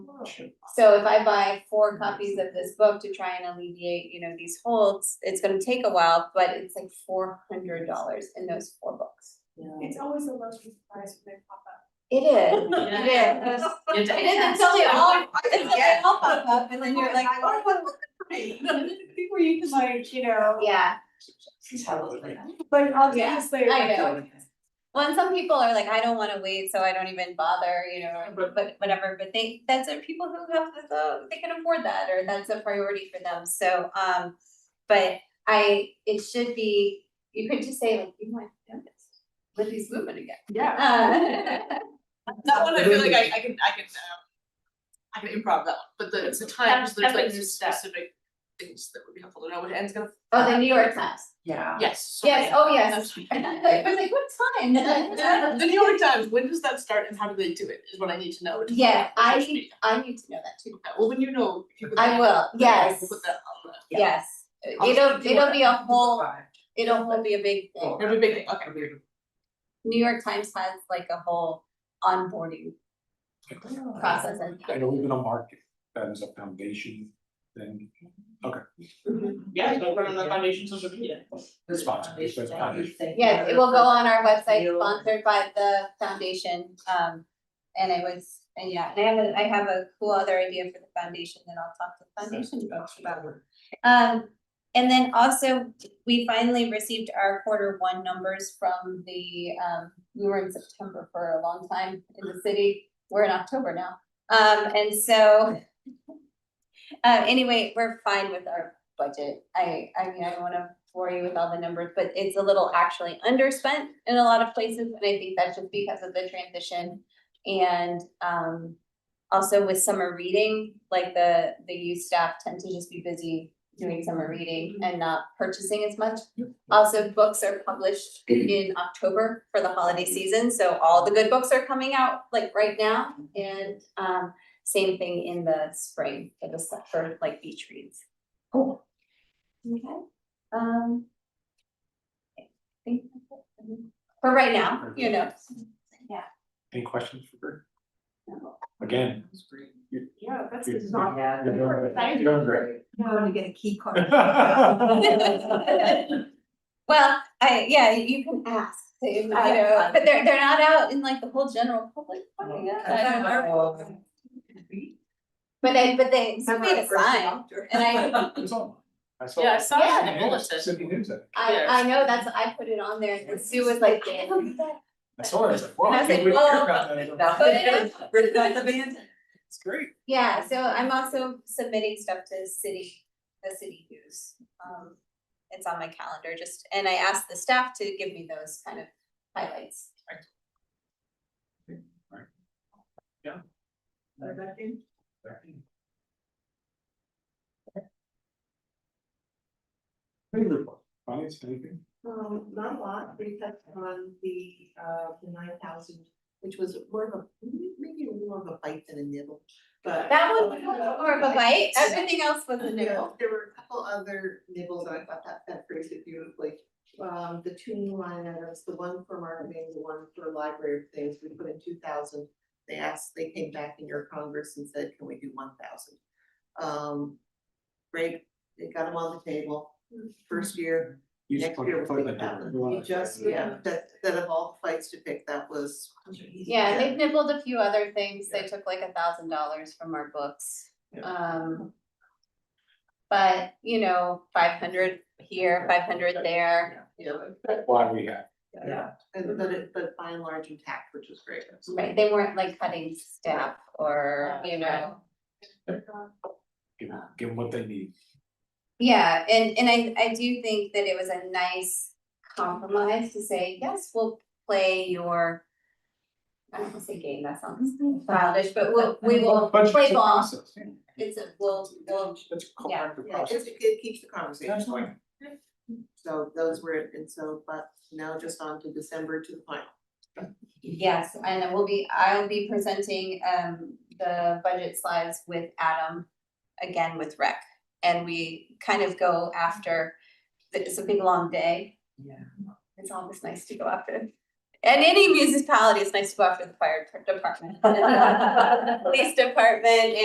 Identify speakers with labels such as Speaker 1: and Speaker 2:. Speaker 1: So if I buy four copies of this book to try and alleviate, you know, these holds, it's gonna take a while, but it's like four hundred dollars in those four books.
Speaker 2: It's always the most surprise when they pop up.
Speaker 1: It is, it
Speaker 3: Yeah.
Speaker 1: is. It is until they all, until they all pop up and then you're like, oh,
Speaker 2: Before you can like, you know,
Speaker 1: yeah.
Speaker 2: but obviously.
Speaker 1: I know. Well, and some people are like, I don't wanna wait, so I don't even bother, you know, or-
Speaker 4: But-
Speaker 1: but whatever, but they, that's what people who have the- the, they can afford that, or that's a priority for them, so, um. But I, it should be, you could just say like, you want this, with these movement again.
Speaker 2: Yeah.
Speaker 1: Uh,
Speaker 4: That one, I feel like I, I can, I can, um, I can improv that one, but the, it's the times, there's like
Speaker 3: That- that was that.
Speaker 4: specific things that would be helpful to know what ends gonna,
Speaker 1: Oh, the New York Times,
Speaker 5: Yeah.
Speaker 4: yes, sorry.
Speaker 1: yes, oh, yes. I was like, what time?
Speaker 4: The New York Times, when does that start and how do they do it, is what I need to know. to-
Speaker 1: Yeah, I
Speaker 4: Okay,
Speaker 1: need, I need to know that too,
Speaker 4: Well, when you know, if you put
Speaker 1: I
Speaker 4: that-
Speaker 1: will, yes,
Speaker 4: We'll put that on
Speaker 5: Yeah.
Speaker 1: yes,
Speaker 4: I'll
Speaker 1: it'll, it'll be a whole, it'll whole be a big thing.
Speaker 5: Cool.
Speaker 4: the, it'll be a big thing, okay.
Speaker 1: New York Times has like a whole onboarding process and.
Speaker 6: I know we've been on market, that is a foundation thing,
Speaker 4: Yeah, don't run on the foundation social media.
Speaker 6: it's sponsored, it's been foundation.
Speaker 1: Yeah, it will go on our website sponsored by the foundation, um, and it was, and yeah, and I have a, I have a cool other idea for the foundation that I'll talk to the foundation folks about. Um, and then also, we finally received our quarter one numbers from the, um, we were in September for a long time in the city. We're in October now, um, and so. Uh, anyway, we're fine with our budget. I, I mean, I don't wanna bore you with all the numbers, but it's a little actually underspent in a lot of places, and I think that's just because of the transition. And, um, also with summer reading, like the, the youth staff tend to just be busy doing summer reading and not purchasing as much. Also, books are published in October for the holiday season, so all the good books are coming out like right now. And, um, same thing in the spring for the, se- for like beach reads.
Speaker 5: Cool.
Speaker 1: Okay, um. I think that's it. For right now, you know, yeah.
Speaker 6: Any questions for her?
Speaker 1: No.
Speaker 6: Again.
Speaker 2: Yeah, that's
Speaker 6: you're-
Speaker 2: not.
Speaker 6: You're doing great. You're doing great.
Speaker 5: Now I'm to get a key card.
Speaker 1: Well, I, yeah, you can ask, you know, but they're, they're not out in like the whole general public. Oh, yeah, I don't know. But they, but they, so made a sign, and I,
Speaker 6: It's on. I saw.
Speaker 3: Yeah, I saw it in the
Speaker 6: Yeah,
Speaker 3: bulletin.
Speaker 6: Sydney News, I-
Speaker 1: I, I know, that's, I put it on there, and Sue was like, "Yeah, look at that."
Speaker 6: I saw it, I was like, wow,
Speaker 1: And I
Speaker 6: I
Speaker 1: was like,
Speaker 6: can't wait to hear
Speaker 1: oh,
Speaker 6: about that. I don't-
Speaker 5: no.
Speaker 1: But it-
Speaker 5: the band.
Speaker 6: It's great.
Speaker 1: yeah, so I'm also submitting stuff to city, the city news, um, it's on my calendar, just, and I asked the staff to give me those kind of highlights.
Speaker 6: Any report? Finance, anything?
Speaker 2: Um, not a lot, we touched on the, uh, the nine thousand, which was more of a, maybe more of a bite than a nibble, but. uh,
Speaker 1: That one was more of a bite, everything else was a
Speaker 2: Yeah,
Speaker 1: nibble.
Speaker 2: There were a couple other nibbles that I thought that that phrased it beautifully. Um, the two new line items, the one for marketing, the one for library of things, we put in two thousand. They asked, they came back in your congress and said, can we do one thousand? Um, great, they got them on the table, first year,
Speaker 6: You just
Speaker 2: next
Speaker 6: put-
Speaker 2: year
Speaker 6: put
Speaker 2: was
Speaker 6: it in
Speaker 2: big
Speaker 6: there.
Speaker 2: thousand.
Speaker 6: You wanna-
Speaker 2: Mm-hmm. You just, yeah, that, that of all the fights to pick, that was.
Speaker 1: Yeah, they've nibbled a few other things, they took like a thousand dollars from our books,
Speaker 6: Yeah.
Speaker 1: um. But, you know, five hundred here, five hundred there,
Speaker 2: Yeah,
Speaker 6: That's why we have.
Speaker 2: yeah, and but it, but by and large intact, which was great.
Speaker 1: right, they weren't like cutting staff or, you know.
Speaker 6: Give give them what they need.
Speaker 1: Yeah, and and I I do think that it was a nice compromise to say, yes, we'll play your. I don't wanna say game, that sounds childish, but we'll, we will
Speaker 6: But it's
Speaker 1: play
Speaker 6: a
Speaker 1: ball,
Speaker 6: process, yeah.
Speaker 1: it's a, we'll, we'll,
Speaker 6: It's a
Speaker 1: yeah,
Speaker 6: collaborative
Speaker 2: Yeah,
Speaker 6: process.
Speaker 2: it's, it keeps the conversation
Speaker 6: Absolutely.
Speaker 2: going. So those were, it, and so, but now just on to December to the final.
Speaker 1: yes, and I will be, I'll be presenting um the budget slides with Adam. Again with rec, and we kind of go after, it's a big long day,
Speaker 5: Yeah.
Speaker 1: it's always nice to go after. And any municipality, it's nice to go after the fire department. police department